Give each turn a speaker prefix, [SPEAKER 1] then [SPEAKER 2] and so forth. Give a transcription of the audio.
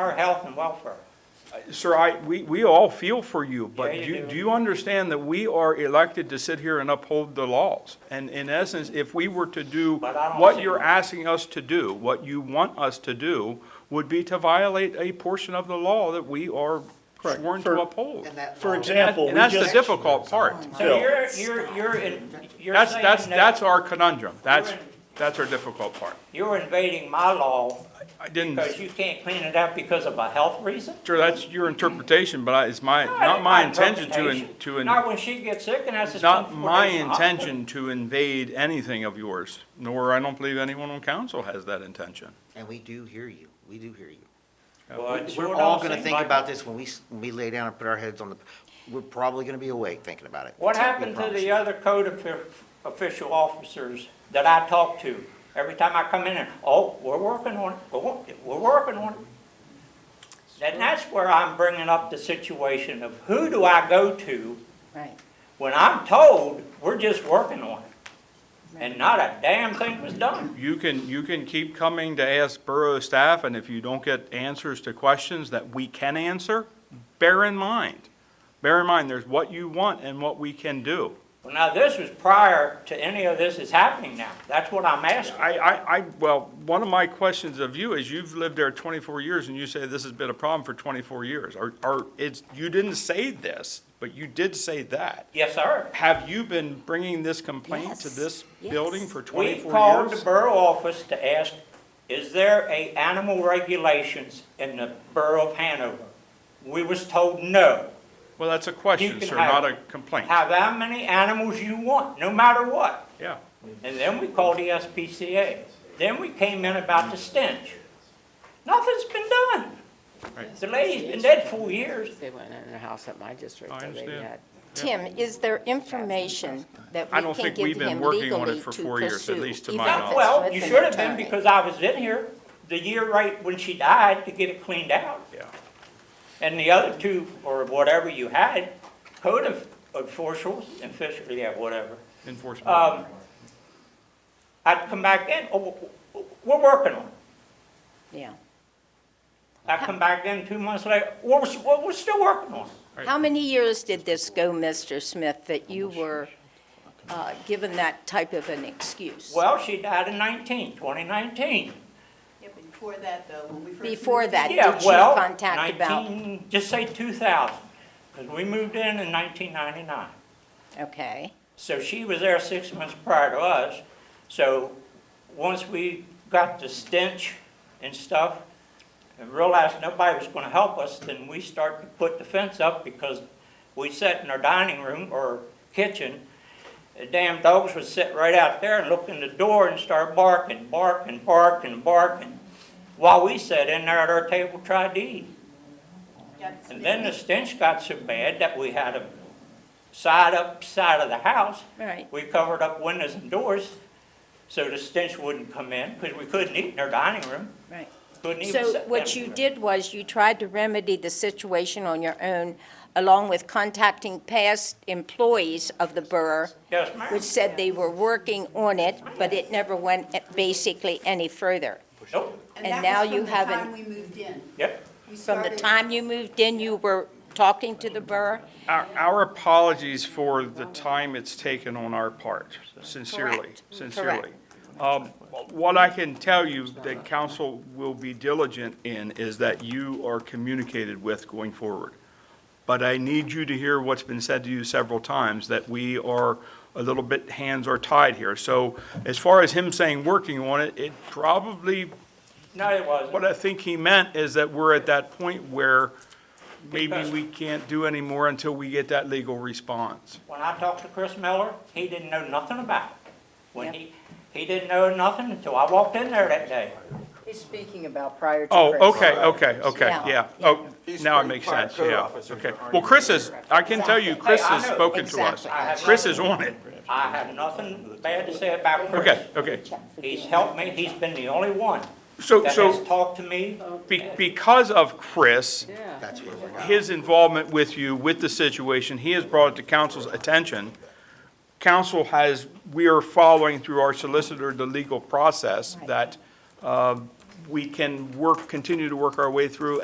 [SPEAKER 1] our health and welfare.
[SPEAKER 2] Sir, I, we, we all feel for you, but
[SPEAKER 1] Yeah,
[SPEAKER 2] do
[SPEAKER 1] you
[SPEAKER 2] you,
[SPEAKER 1] do.
[SPEAKER 2] do you understand that we are elected to sit here and uphold the laws? And in essence, if we were to do
[SPEAKER 1] But I don't
[SPEAKER 2] what
[SPEAKER 1] see-
[SPEAKER 2] you're asking us to do, what you want us to do, would be to violate a portion of the law that we are
[SPEAKER 3] Correct.
[SPEAKER 2] sworn
[SPEAKER 3] For-
[SPEAKER 2] to uphold.
[SPEAKER 4] And that
[SPEAKER 3] For
[SPEAKER 4] law-
[SPEAKER 3] example, we
[SPEAKER 2] And that's the
[SPEAKER 3] just-
[SPEAKER 2] difficult part.
[SPEAKER 1] So you're, you're, you're, in- you're
[SPEAKER 2] That's,
[SPEAKER 1] saying
[SPEAKER 2] that's, that's
[SPEAKER 1] that
[SPEAKER 2] our conundrum. That's,
[SPEAKER 1] in-
[SPEAKER 2] that's our difficult part.
[SPEAKER 1] you're invading my law
[SPEAKER 2] I didn't,
[SPEAKER 1] because you can't clean it up because of a health reason?
[SPEAKER 2] sure, that's your interpretation, but I, it's my, not my intention to, in- to. in-
[SPEAKER 1] Not when she gets sick and has to
[SPEAKER 2] It's
[SPEAKER 1] spend
[SPEAKER 2] not
[SPEAKER 1] four
[SPEAKER 2] my
[SPEAKER 1] days in the hospital.
[SPEAKER 2] intention to invade anything of yours, nor I don't believe anyone on council has that intention.
[SPEAKER 4] And we do hear you, we do hear you.
[SPEAKER 1] Well, it sure
[SPEAKER 4] We're all
[SPEAKER 1] don't
[SPEAKER 4] gonna
[SPEAKER 1] seem
[SPEAKER 4] think
[SPEAKER 1] like-
[SPEAKER 4] about this when we, s- when we lay down and put our heads on the, we're probably gonna be awake thinking about it.
[SPEAKER 1] What
[SPEAKER 4] We
[SPEAKER 1] happened to
[SPEAKER 4] promise
[SPEAKER 1] the
[SPEAKER 4] you.
[SPEAKER 1] other code offi- official officers that I talk to? Every time I come in and, oh, we're working on it, we're wor- we're working on it. And that's where I'm bringing up the situation of who do I go to
[SPEAKER 5] Right.
[SPEAKER 1] when I'm told we're just working on it? And not a damn thing was done.
[SPEAKER 2] You can, you can keep coming to ask borough staff, and if you don't get answers to questions that we can answer, bear in mind, bear in mind, there's what you want and what we can do.
[SPEAKER 1] Well, now this was prior to any of this is happening now. That's what I'm asking.
[SPEAKER 2] I, I, I, well, one of my questions of you is you've lived there twenty-four years and you say this has been a problem for twenty-four years. Or, or it's, you didn't say this, but you did say that.
[SPEAKER 1] Yes, sir.
[SPEAKER 2] Have you been bringing this complaint to
[SPEAKER 5] Yes,
[SPEAKER 2] this
[SPEAKER 5] yes.
[SPEAKER 2] building for
[SPEAKER 1] We
[SPEAKER 2] twenty-four
[SPEAKER 1] called the
[SPEAKER 2] years?
[SPEAKER 1] borough office to ask, is there a animal regulations in the borough of Hanover? We was told no.
[SPEAKER 2] Well, that's a
[SPEAKER 1] You
[SPEAKER 2] question,
[SPEAKER 1] can
[SPEAKER 2] sir,
[SPEAKER 1] have-
[SPEAKER 2] not a complaint.
[SPEAKER 1] Have how many animals you want, no matter what.
[SPEAKER 2] Yeah.
[SPEAKER 1] And then we called the SPCA. Then we came in about the stench. Nothing's been done. The lady's been dead four years.
[SPEAKER 6] They went in a house at my district.
[SPEAKER 2] I
[SPEAKER 6] that they
[SPEAKER 2] understand.
[SPEAKER 6] had.
[SPEAKER 5] Tim, is there information that
[SPEAKER 2] I
[SPEAKER 5] we
[SPEAKER 2] don't
[SPEAKER 5] can
[SPEAKER 2] think we've
[SPEAKER 5] give
[SPEAKER 2] been
[SPEAKER 5] him
[SPEAKER 2] working on it
[SPEAKER 5] legally
[SPEAKER 2] for
[SPEAKER 5] to
[SPEAKER 2] four years, at
[SPEAKER 5] pursue,
[SPEAKER 2] least to my
[SPEAKER 5] even if
[SPEAKER 2] knowledge.
[SPEAKER 5] it's
[SPEAKER 1] Well,
[SPEAKER 5] with
[SPEAKER 1] you
[SPEAKER 5] an
[SPEAKER 1] should have been
[SPEAKER 5] attorney?
[SPEAKER 1] because I was in here the year right when she died to get it cleaned out.
[SPEAKER 2] Yeah.
[SPEAKER 1] And the other two, or whatever you had, code of officials, official, yeah, whatever,
[SPEAKER 2] Enforcement.
[SPEAKER 1] um, I'd come back in, oh, w- w- we're working on it.
[SPEAKER 5] Yeah.
[SPEAKER 1] I come back in two months later, we're, s- we're we're still working on it.
[SPEAKER 5] How many years did this go, Mr. Smith, that you were uh, given that type of an excuse?
[SPEAKER 1] Well, she died in 19, 2019.
[SPEAKER 7] Yeah, before that though, when we first.
[SPEAKER 5] Before
[SPEAKER 7] moved
[SPEAKER 5] that,
[SPEAKER 7] in-
[SPEAKER 5] did
[SPEAKER 1] Yeah,
[SPEAKER 5] you
[SPEAKER 1] well,
[SPEAKER 5] contact about?
[SPEAKER 1] 19 Just say two thousand, because we moved in in nineteen ninety-nine.
[SPEAKER 5] Okay,
[SPEAKER 1] So she was there six months prior to us. So once we got the stench and stuff and realized nobody was gonna help us, then we started to put the fence up because we sat in our dining room or kitchen. The damn dogs would sit right out there and look in the door and start barking, barking, barking, barking. While we sat in there at our table, tried to eat.
[SPEAKER 7] Yeah,
[SPEAKER 1] And then the stench got so bad that we had a side up side of the house
[SPEAKER 5] all right.
[SPEAKER 1] we covered up windows and doors so the stench wouldn't come in, because we couldn't eat in our dining room.
[SPEAKER 5] Right.
[SPEAKER 1] Couldn't even sit
[SPEAKER 5] So
[SPEAKER 1] down.
[SPEAKER 5] what you did was you tried to remedy the situation on your own, along with contacting past employees of the borough,
[SPEAKER 1] Yes, ma'am.
[SPEAKER 5] which said they were working on it, but it never went eh, basically any further.
[SPEAKER 1] Nope,
[SPEAKER 7] that
[SPEAKER 5] and
[SPEAKER 7] was
[SPEAKER 5] now you have an-
[SPEAKER 7] From the time we moved in.
[SPEAKER 1] yep.
[SPEAKER 7] We
[SPEAKER 5] From the
[SPEAKER 7] started-
[SPEAKER 5] time you moved in, you were talking to the borough?
[SPEAKER 2] Our, our apologies for the time it's taken on our part, sincerely,
[SPEAKER 5] Correct.
[SPEAKER 2] sincerely. Um, What I can tell you that council will be diligent in is that you are communicated with going forward. But I need you to hear what's been said to you several times, that we are a little bit, hands are tied here. So as far as him saying working on it, it probably
[SPEAKER 1] No, it
[SPEAKER 2] what
[SPEAKER 1] wasn't.
[SPEAKER 2] I think he meant is that we're at that point where maybe
[SPEAKER 1] Because-
[SPEAKER 2] we can't do any more until we get that legal response.
[SPEAKER 1] When I talked to Chris Miller, he didn't know nothing about it. When he, he didn't know nothing until I walked in there that day.
[SPEAKER 6] He's speaking about prior to.
[SPEAKER 2] Oh,
[SPEAKER 6] Chris.
[SPEAKER 2] okay, okay, okay,
[SPEAKER 5] Yeah.
[SPEAKER 2] yeah. Oh, now it makes
[SPEAKER 8] prior
[SPEAKER 2] sense,
[SPEAKER 8] code
[SPEAKER 2] yeah,
[SPEAKER 8] officers
[SPEAKER 2] okay.
[SPEAKER 8] that aren't
[SPEAKER 2] Well, Chris is, I can tell you, Chris
[SPEAKER 1] Hey, I
[SPEAKER 2] has
[SPEAKER 1] know.
[SPEAKER 2] spoken to us.
[SPEAKER 5] Exactly. I
[SPEAKER 1] have
[SPEAKER 2] Chris is on it.
[SPEAKER 1] I have nothing bad to say about Chris.
[SPEAKER 2] Okay, okay.
[SPEAKER 1] He's helped me, he's been the only one
[SPEAKER 2] So,
[SPEAKER 1] that has
[SPEAKER 2] so
[SPEAKER 1] talked to me.
[SPEAKER 5] Oh.
[SPEAKER 2] be- because of Chris,
[SPEAKER 6] Yeah.
[SPEAKER 4] That's where we're at.
[SPEAKER 2] his involvement with you, with the situation, he has brought it to council's attention. Council has, we are following through our solicitor, the legal process that uh, we can work, continue to work our way through